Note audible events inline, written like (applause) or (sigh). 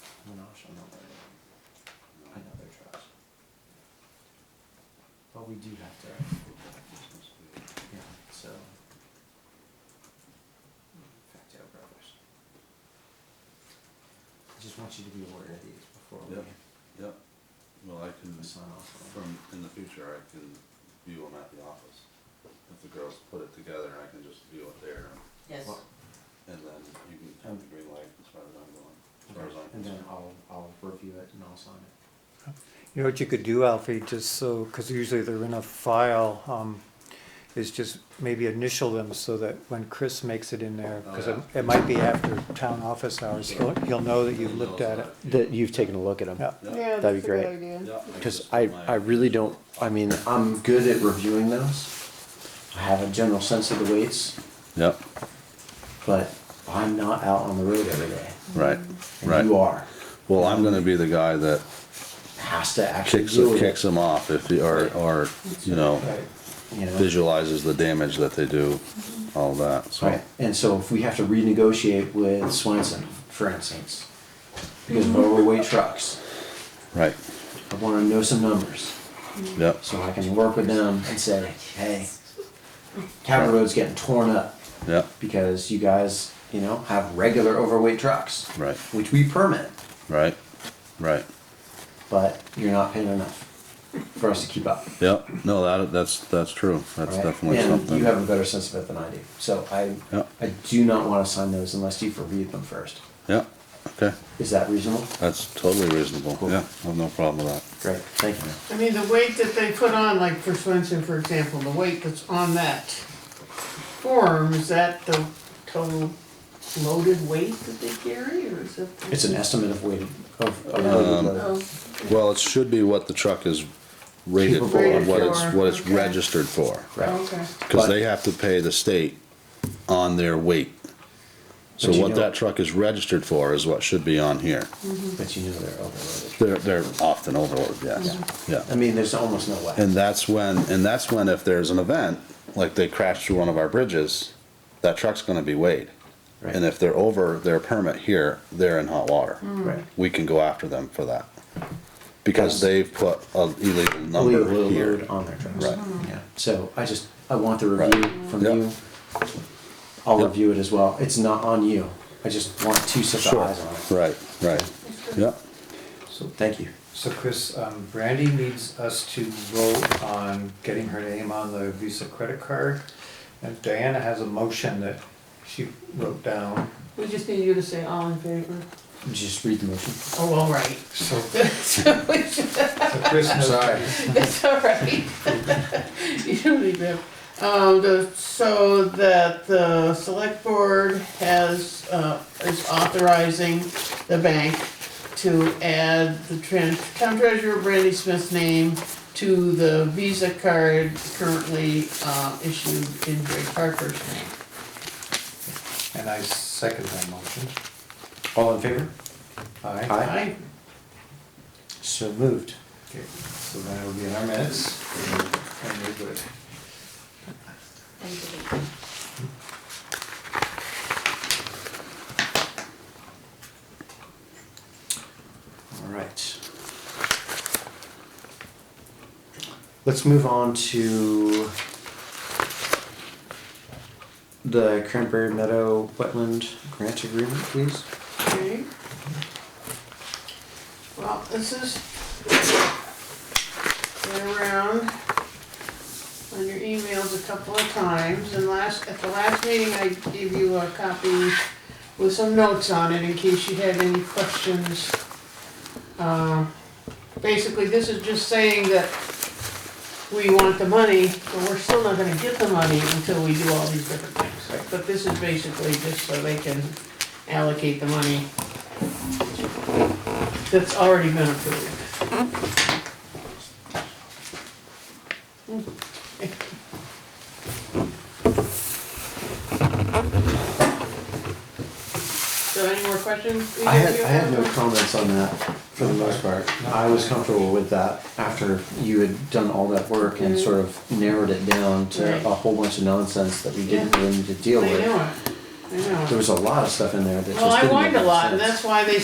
trash, another, another trash. But we do have to, yeah, so. Back to our brothers. I just want you to be aware of these before we Yep. Yep, well, I can, sign off on them. from, in the future, I can view them at the office. If the girls put it together, I can just view it there, Yes, Well, and then you can have the green light as far as I'm going, as far as I'm And then concerned. I'll, I'll review it and I'll sign it. You know what you could do, Alfie, just so, because usually they're in a file, um, is just maybe initial them so that when Chris makes it in there, because it, it might be after town office hours, he'll, he'll know that you've looked at it. That you've taken a look at them. Yeah. Yep, Yeah, That'd that's be a good great. idea. yep. can Because just I, put my- I really don't, I mean, I'm good at reviewing those. I have a general sense of the weights, Yep, but I'm not out on the road every day. right, And you are. Well, I'm gonna be the guy that Has to actually do it. them off if, or, or, you know, You know? visualizes the damage that they do, all that, Right. And so if we have to renegotiate with Swenson, for instance, because of overweight trucks, right, I want to know some numbers yep, so I can work with them and say, hey, Cabot Road's getting torn up. yep, because you guys, you know, have regular overweight trucks, right, which we permit, right, right. but you're not paying enough for us to keep up. Yep, no, that, that's, that's true, that's right? definitely and something. you have a better sense of it than I do. So I, Yep. I do not want to sign those unless you've reviewed them first. Yeah, okay, Is that reasonable? that's totally reasonable, Cool. yeah, I have no problem with Great, thank you. man. I mean, the weight that they put on, like for Swenson, for example, the weight that's on that form, is that the total loaded weight that they carry, or is it? It's an estimate of weighted of, of loaded Um, load. Oh, that. Well, it should be what the truck is rated for, and what it's, what it's Rated for, okay. registered for, right? okay. cause they have to pay the state on their weight. So But you what know- Mm-hmm. that truck is registered for is what should be on here, But you know they're overloaded. they're, they're often overloaded, yes, yeah. I mean, there's almost no way. And that's when, and that's when if there's an event, like they crash through one of our bridges, that truck's gonna be weighed. Right. And if they're over their permit here, they're in hot water. right. We can go after them for that. Because Mm. Yes. they've put an illegal number Illegal here. load on their trucks. Right. Yeah, so I just, I want the Right. review from Yep. you. I'll Yep. review it as well. It's not on you. I just want two sets of Sure, eyes on it. right, right, yeah, So, Thank you. so Chris, um, Brandy needs us to vote on getting her name on the Visa credit card. And Diana has a motion that she wrote down, We just need you to say all in favor. Just read the motion. Oh, all (laughs) right. so. So Chris knows. Sorry. (laughs) That's all right. You don't need that. Um, the, so that the select board has, uh, is authorizing the bank to add the tran- town treasurer Brandy Smith's name to the Visa card currently, uh, issued in Greg Parker's name. And I second that motion. All in favor? Aye. Aye. I, So moved. Okay, so then it'll be in our minutes. And we're good. thank you. All right. Let's move on to the Cranberry Meadow Wetland Grant Agreement, please. Okay. Well, this is been around on your emails a couple of times, and last, at the last meeting, I gave you a copy with some notes on it in case you had any questions. Uh, Basically, this is just saying that we want the money, but we're still not gonna get the money until we do all these different things. But this is basically just so they can allocate the money that's already been approved. So any more questions? I had, either of you I had no comments on that for the most part. I was comfortable with that after you had done all that work and sort of narrowed it down to Right. a whole bunch of nonsense that we didn't Yeah. really need to deal I know with. it, I know it. There was a lot of stuff in there that just Well, didn't I make whined a any lot, and sense. that's why they